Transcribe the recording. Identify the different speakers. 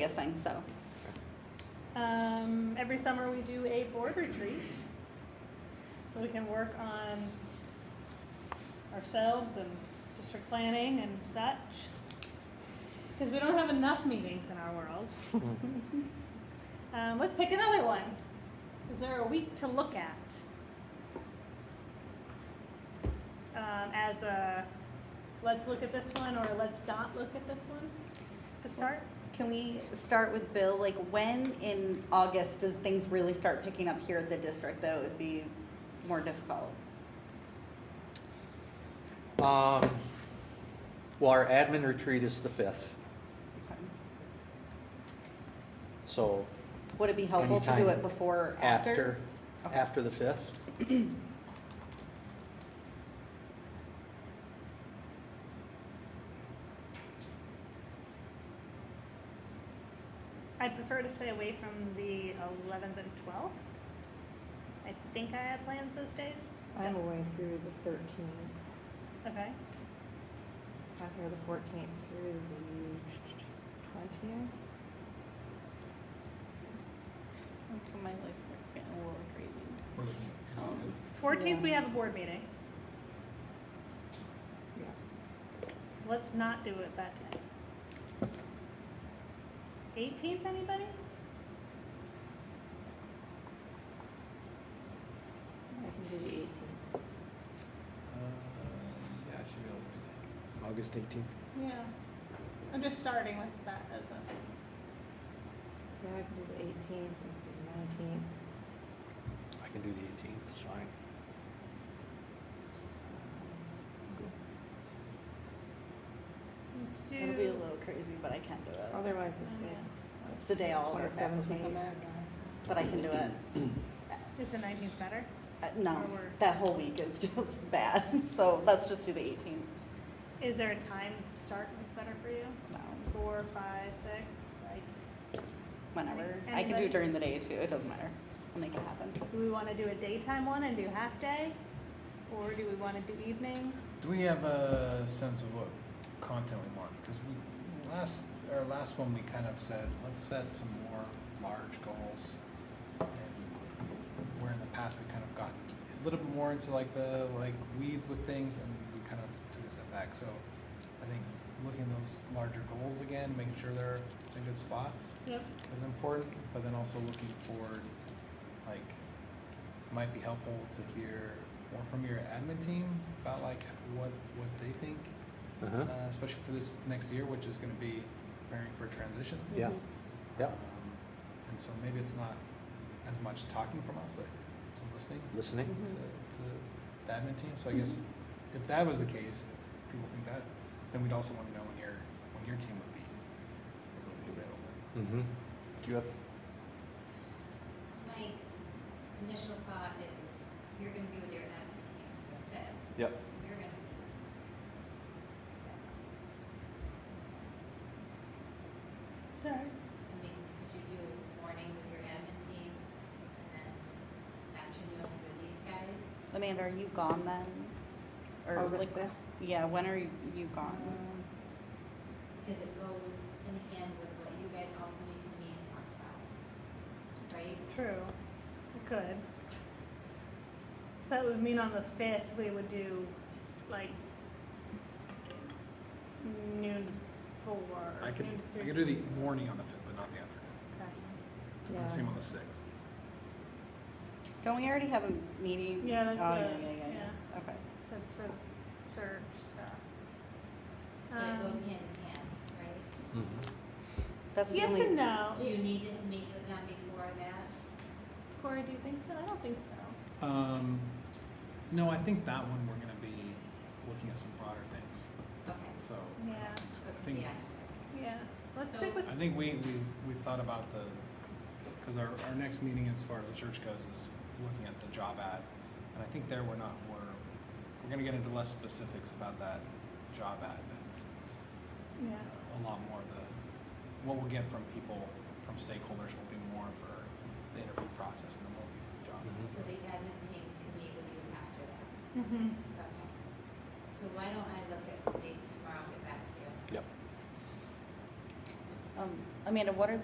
Speaker 1: biggest thing, so.
Speaker 2: Um, every summer we do a board retreat, so we can work on ourselves and district planning and such. Because we don't have enough meetings in our world. Um, let's pick another one. Is there a week to look at? Um, as a, let's look at this one, or let's not look at this one to start?
Speaker 1: Can we start with Bill? Like, when in August do things really start picking up here at the district, though? It would be more difficult.
Speaker 3: Um, well, our admin retreat is the fifth, so
Speaker 1: Would it be helpful to do
Speaker 3: Anytime
Speaker 1: it before, or
Speaker 3: after,
Speaker 1: after? Okay.
Speaker 3: after the fifth.
Speaker 2: I'd prefer to stay away from the 11th and 12th. I think I have plans those days.
Speaker 4: I'm away through the 13th,
Speaker 2: Okay.
Speaker 4: not here the 14th, through the 20th.
Speaker 1: That's when my life starts getting a little crazy.
Speaker 5: We're looking at
Speaker 1: Um,
Speaker 5: August.
Speaker 2: 14th, we
Speaker 4: Yeah.
Speaker 2: have a board meeting.
Speaker 4: Yes.
Speaker 2: So Let's not do it that day. 18th, anybody?
Speaker 4: I can do the 18th.
Speaker 5: Uh, Yeah, I should be able to
Speaker 3: August eighteenth.
Speaker 2: Yeah. I'm just starting with that as a.
Speaker 4: Yeah, I can do the 18th, I can do the 19th.
Speaker 3: I can do the eighteenth, it's fine.
Speaker 1: It'll be a little crazy, but I can do it.
Speaker 4: Otherwise, it's
Speaker 2: Yeah.
Speaker 4: the
Speaker 1: It's the day all of our staff
Speaker 4: 27th,
Speaker 1: is in
Speaker 4: 28th.
Speaker 1: America, but I can do it.
Speaker 2: Is the 19th better?
Speaker 1: Uh, No,
Speaker 2: Or worse.
Speaker 1: that whole week is just bad, so let's just do the 18th.
Speaker 2: Is there a time start that's better for you?
Speaker 1: No,
Speaker 2: Four, five, six? Like,
Speaker 1: whenever. I can do
Speaker 2: Anybody?
Speaker 1: it during the day, too. It doesn't matter. I'll make it happen.
Speaker 2: do we want to do a daytime one and do half day? Or do we want to do evening?
Speaker 5: Do we have a sense of what content we want? Because we, last, our last one, we kind of said, let's set some more large goals. And Where in the past, we kind of got a little bit more into like the, like weeds with things and we kind of took a step back. So I think looking at those larger goals again, making sure they're in a good spot.
Speaker 2: Yep.
Speaker 5: is important, but then also looking forward, like, might be helpful to hear more from your admin team about like what, what they think, uh,
Speaker 3: Uh-huh,
Speaker 5: especially for this next year, which is gonna be preparing for transition.
Speaker 3: yeah,
Speaker 1: Mm-hmm.
Speaker 3: yeah,
Speaker 5: Um, And so maybe it's not as much talking from us, but some listening
Speaker 3: listening.
Speaker 5: to, to the admin team. So I guess if that was the case, if people think that, then we'd also wanna know when your, when your team would be, would be available.
Speaker 3: Mm-hmm. Do you have,
Speaker 6: My initial thought is, you're gonna be with your admin team for the fifth,
Speaker 3: yep,
Speaker 6: you're gonna.
Speaker 2: Sorry.
Speaker 6: I mean, could you do morning with your admin team, and then afternoon with these guys?
Speaker 1: Amanda, are you gone then? Or
Speaker 4: August
Speaker 1: like,
Speaker 4: 5th.
Speaker 1: yeah, when are you you gone?
Speaker 2: Mm.
Speaker 4: Um,
Speaker 6: Because it goes in hand with what you guys also need to meet and talk about, right?
Speaker 2: True. We could. So that would mean on the fifth, we would do like noon to four.
Speaker 5: I could,
Speaker 2: noon to
Speaker 5: I
Speaker 2: three.
Speaker 5: could do the morning on the fifth, but not the afternoon.
Speaker 2: Okay.
Speaker 4: Yeah.
Speaker 5: The same on the sixth.
Speaker 1: Don't we already have a meeting?
Speaker 2: Yeah, that's
Speaker 1: Oh,
Speaker 2: it.
Speaker 1: yeah, yeah, yeah, yeah. Okay.
Speaker 2: That's for the search stuff.
Speaker 6: But it goes
Speaker 2: Um,
Speaker 6: hand in hand, right?
Speaker 3: Mm-hmm.
Speaker 1: That's the
Speaker 2: Yes and
Speaker 1: only,
Speaker 2: no.
Speaker 6: Do you need to meet with them before that?
Speaker 2: Corey, do you think so? I don't think so.
Speaker 5: Um, no, I think that one we're gonna be looking at some broader things,
Speaker 6: Okay.
Speaker 5: so.
Speaker 2: Yeah,
Speaker 6: so
Speaker 5: I
Speaker 6: it could
Speaker 5: think,
Speaker 6: be after.
Speaker 2: yeah. Let's
Speaker 6: So-
Speaker 2: stick with,
Speaker 5: I think we, we, we thought about the, cause our, our next meeting as far as the church goes is looking at the job ad. And I think there we're not, we're, we're gonna get into less specifics about that job ad and
Speaker 2: yeah.
Speaker 5: a lot more of the, what we'll get from people, from stakeholders will be more for the interview process and the multi job.
Speaker 6: So the admin team can meet with you after that.
Speaker 2: Mm-hmm.
Speaker 6: Okay. So why don't I look at some dates tomorrow and get back to you?
Speaker 3: yep.
Speaker 1: Um, Amanda, what are